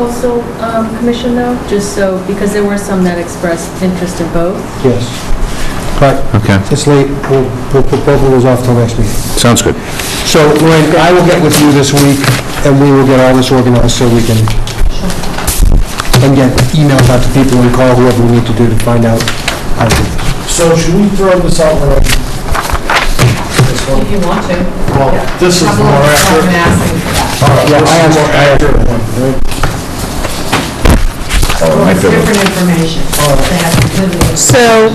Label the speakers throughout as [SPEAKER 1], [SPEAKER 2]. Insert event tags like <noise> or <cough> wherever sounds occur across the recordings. [SPEAKER 1] coastal um, commission though? Just so, because there were some that expressed interest in both.
[SPEAKER 2] Yes. But
[SPEAKER 3] Okay,
[SPEAKER 2] it's late, we'll, we'll put both of those off till next meeting.
[SPEAKER 3] sounds good.
[SPEAKER 2] So Lorraine, I will get with you this week, and we will get all this organized so we can, and get emails out to people and call whoever we need to do to find out how to do this.
[SPEAKER 4] So should we throw this out when I... This one?
[SPEAKER 5] If you want to.
[SPEAKER 4] Well, this is
[SPEAKER 5] Have a
[SPEAKER 4] more
[SPEAKER 5] little fun and ask them
[SPEAKER 4] accurate.
[SPEAKER 5] for that.
[SPEAKER 2] Yeah, I
[SPEAKER 4] This is
[SPEAKER 2] have-
[SPEAKER 4] more accurate one,
[SPEAKER 5] It's different
[SPEAKER 4] right?
[SPEAKER 5] information. They have completely-
[SPEAKER 6] So,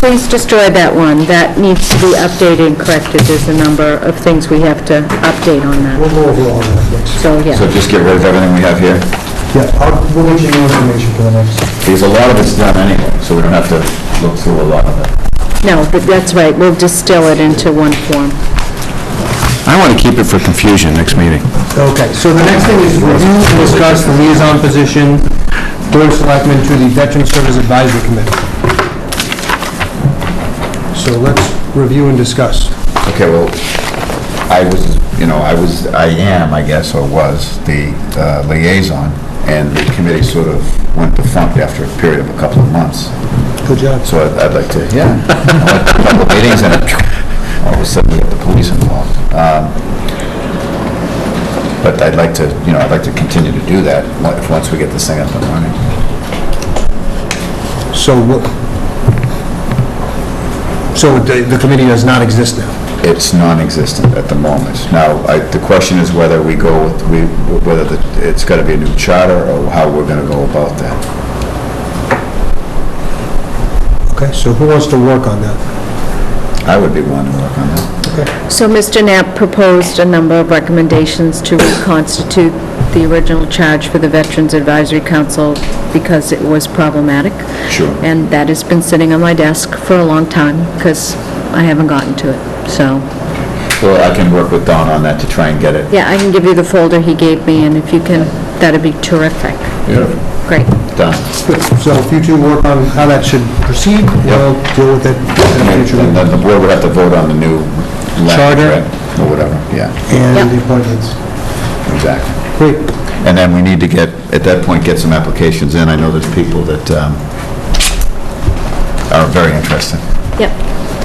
[SPEAKER 6] please destroy that one. That needs to be updated and corrected. There's a number of things we have to update on that.
[SPEAKER 2] We'll go over all that next.
[SPEAKER 6] So, yeah.
[SPEAKER 3] So just get rid of everything we have here?
[SPEAKER 2] Yeah, I'll, we'll get you new information for the next.
[SPEAKER 3] Because a lot of it's done anyway, so we don't have to look through a lot of it.
[SPEAKER 6] No, but that's right. We'll distill it into one form.
[SPEAKER 3] I want to keep it for confusion next meeting.
[SPEAKER 2] Okay, so the next thing is review and discuss the liaison position, board of selectmen to the Veteran Service Advisory Committee. So let's review and discuss.
[SPEAKER 3] Okay, well, I was, you know, I was, I am, I guess, or was, the uh, liaison, and the committee sort of went defunct after a period of a couple of months.
[SPEAKER 2] Good job.
[SPEAKER 3] So I'd- I'd like to, yeah, <laughs> I went to a couple of meetings and all of a sudden we got the police involved. Um, But I'd like to, you know, I'd like to continue to do that, on- if once we get this thing up and running.
[SPEAKER 2] So what, so the, the committee does not exist now?
[SPEAKER 3] It's non-existent at the moment. Now, I- the question is whether we go with, we- whether the- it's got to be a new charter or how we're going to go about that.
[SPEAKER 2] Okay, so who wants to work on that? <laughs>
[SPEAKER 3] I would be willing to work on that.
[SPEAKER 6] So Mr. Knapp proposed a number of recommendations to reconstitute the original charge for the Veterans Advisory Council because it was problematic.
[SPEAKER 3] Sure.
[SPEAKER 6] And that has been sitting on my desk for a long time because I haven't gotten to it, so.
[SPEAKER 3] Well, I can work with Don on that to try and get it.
[SPEAKER 6] Yeah, I can give you the folder he gave me, and if you can, that'd be terrific.
[SPEAKER 3] Beautiful.
[SPEAKER 6] Great.
[SPEAKER 3] Done.
[SPEAKER 2] Good. So if you two work on how that should proceed, we'll deal with it in a future meeting.
[SPEAKER 3] And then the board would have to vote on the new language,
[SPEAKER 2] Charter.
[SPEAKER 3] right? Or whatever, yeah,
[SPEAKER 2] and
[SPEAKER 6] Yep.
[SPEAKER 2] the appointments.
[SPEAKER 3] exactly.
[SPEAKER 2] Great,
[SPEAKER 3] And then we need to get, at that point, get some applications in. I know there's people that um, are very interested.
[SPEAKER 6] Yep.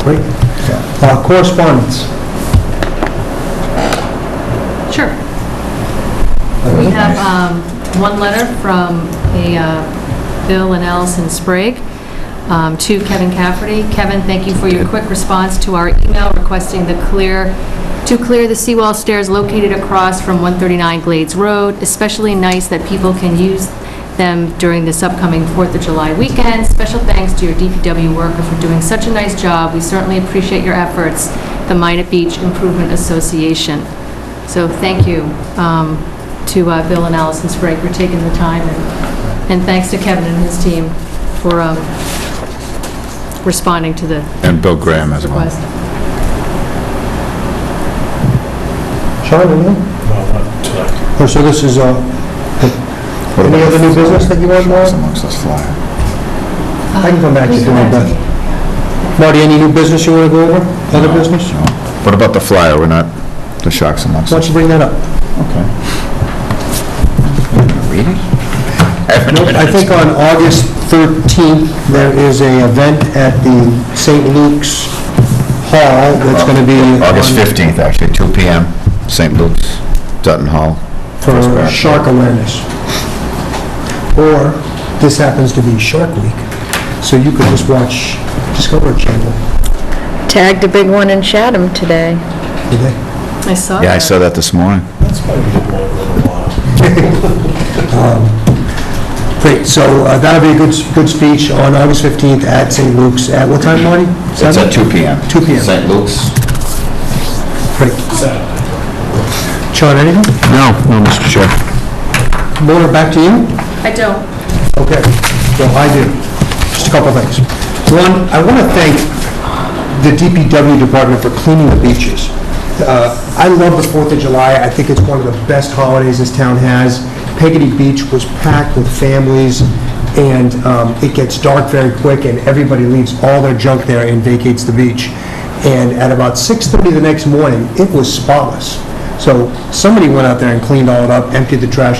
[SPEAKER 2] great. Uh, Correspondence.
[SPEAKER 5] Sure. We have um, one letter from a uh, Bill and Allison Sprague um, to Kevin Cafferty. Kevin, thank you for your quick response to our email requesting the clear, to clear the seawall stairs located across from 139 Glades Road. Especially nice that people can use them during this upcoming 4th of July weekend. Special thanks to your DPW worker for doing such a nice job. We certainly appreciate your efforts, the Minnet Beach Improvement Association. So thank you um, to uh, Bill and Allison Sprague for taking the time, and and thanks to Kevin and his team for um, responding to the
[SPEAKER 3] And Bill Graham as well.
[SPEAKER 5] request.
[SPEAKER 2] Sean, anything?
[SPEAKER 4] No, not tonight.
[SPEAKER 2] Oh, so this is, uh,
[SPEAKER 3] What
[SPEAKER 2] any
[SPEAKER 3] about-
[SPEAKER 2] other new business that you want,
[SPEAKER 3] Flies
[SPEAKER 2] Marty?
[SPEAKER 3] amongst us fly.
[SPEAKER 2] I can come back to you if you want, but. Marty, any new business you want to go over? Other business?
[SPEAKER 3] No. What about the flyer? We're not, the sharks amongst
[SPEAKER 2] Why don't
[SPEAKER 3] us.
[SPEAKER 2] you bring that up?
[SPEAKER 3] Okay. Read it? I haven't even-
[SPEAKER 2] I think on August 13th, there is a event at the St. Luke's Hall that's going to be...
[SPEAKER 3] Uh, August
[SPEAKER 2] on-
[SPEAKER 3] 15th, actually, 2 PM, St. Luke's, Dutton Hall.
[SPEAKER 2] For shark awareness. Or, this happens to be Shark Week, so you could just watch Discovery Channel
[SPEAKER 6] Tagged a big one in Chatham today.
[SPEAKER 2] today.
[SPEAKER 5] I saw
[SPEAKER 3] Yeah, I
[SPEAKER 5] that.
[SPEAKER 3] saw that this morning.
[SPEAKER 4] That's probably the one in a while.
[SPEAKER 2] Great, so uh, that'll be a good, good speech on August 15th at St. Luke's, at what time, Marty?
[SPEAKER 3] It's
[SPEAKER 2] Seven?
[SPEAKER 3] at 2 PM.
[SPEAKER 2] 2 p.m.
[SPEAKER 3] St. Luke's.
[SPEAKER 2] Great. Sean, anything?
[SPEAKER 3] No, no, Mr. Chair.
[SPEAKER 2] Mona, back to you?
[SPEAKER 5] I don't.
[SPEAKER 2] Okay, well, I do. Just a couple things. One, I want to thank the DPW department for cleaning the beaches. Uh, I love the Fourth of July. I think it's one of the best holidays this town has. Peggy Beach was packed with families, and um, it gets dark very quick, and everybody leaves all their junk there and vacates the beach. And at about 6:30 the next morning, it was spotless. So somebody went out there and cleaned all it up, emptied the trash